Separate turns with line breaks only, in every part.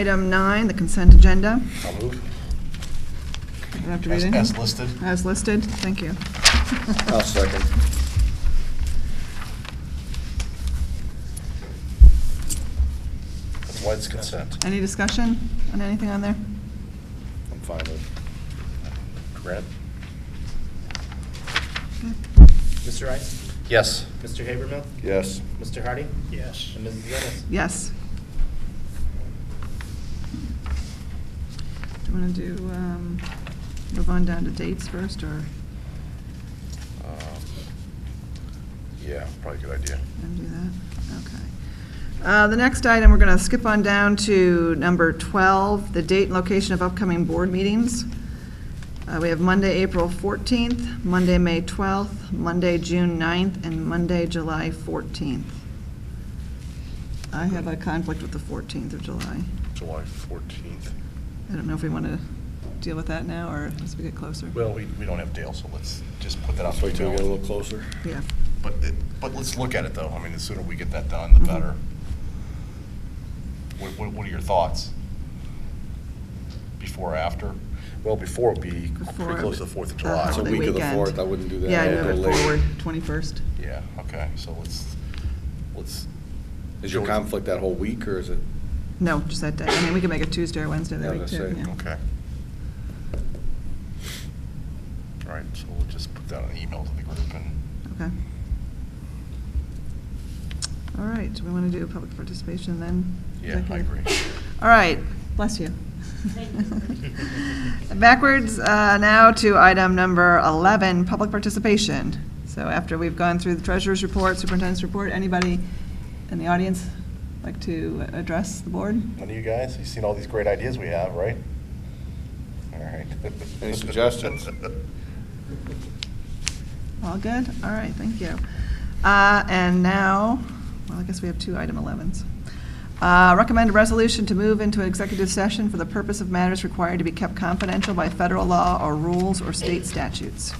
Item nine, the consent agenda.
I'll move.
I don't have to read
As
any.
as listed.
As listed, thank you.
I'll second.
White's consent.
Any discussion on anything on there?
I'm fine with grant.
Mr. Rice?
Yes.
Mr. Habermill?
Yes.
Mr. Hardy? Yes. And Mrs. Ennis?
Yes. Do you want to do, um, move on down to dates first, or
Um, Yeah, probably a good idea.
and do that? Okay. Uh, The next item, we're going to skip on down to number 12, the date and location of upcoming board meetings. Uh, We have Monday, April 14th, Monday, May 12th, Monday, June 9th, and Monday, July 14th. I have a conflict with the 14th of July.
July 14th.
I don't know if we want to deal with that now, or as we get closer.
Well, we, we don't have Dale, so let's just put that out
Let's
for
wait till we get a
now.
little closer.
Yeah,
But, it- but let's look at it, though. I mean, the sooner we get that done, the
Mhm.
better. What, what what are your thoughts? Before or after? Well, before would be
Before-
pretty close to the 4th of
the
July.
It's a
holiday
week of the
weekend.
4th, I wouldn't do that.
yeah, I
I'd
move
go
it
later.
forward, 21st.
Yeah, okay, so let's, let's,
Is your conflict that whole week, or is it?
No, just that day. I mean, we can make it Tuesday or Wednesday that
Yeah, I
week,
was
too.
gonna say.
yeah.
okay. All right, so we'll just put that on email to the group and,
Okay. All right, do we want to do public participation then?
yeah, I
Executive?
agree.
All right, bless you. Backwards uh, now to item number 11, public participation. So after we've gone through the treasurer's report, superintendent's report, anybody in the audience like to address the board?
None of you guys, you've seen all these great ideas we have, right? All right.
Any suggestions?
All good? All right, thank you. Uh, And now, well, I guess we have two item 11s. Uh, Recommend a resolution to move into an executive session for the purpose of matters required to be kept confidential by federal law or rules or state statutes.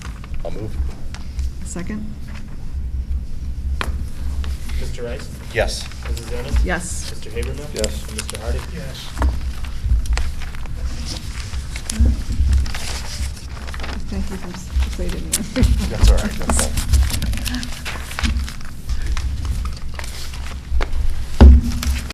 I'll move.
Second?
Mr. Rice?
Yes.
Mrs. Ennis?
Yes.
Mr. Habermill?
Yes.
And Mr. Hardy? Yes.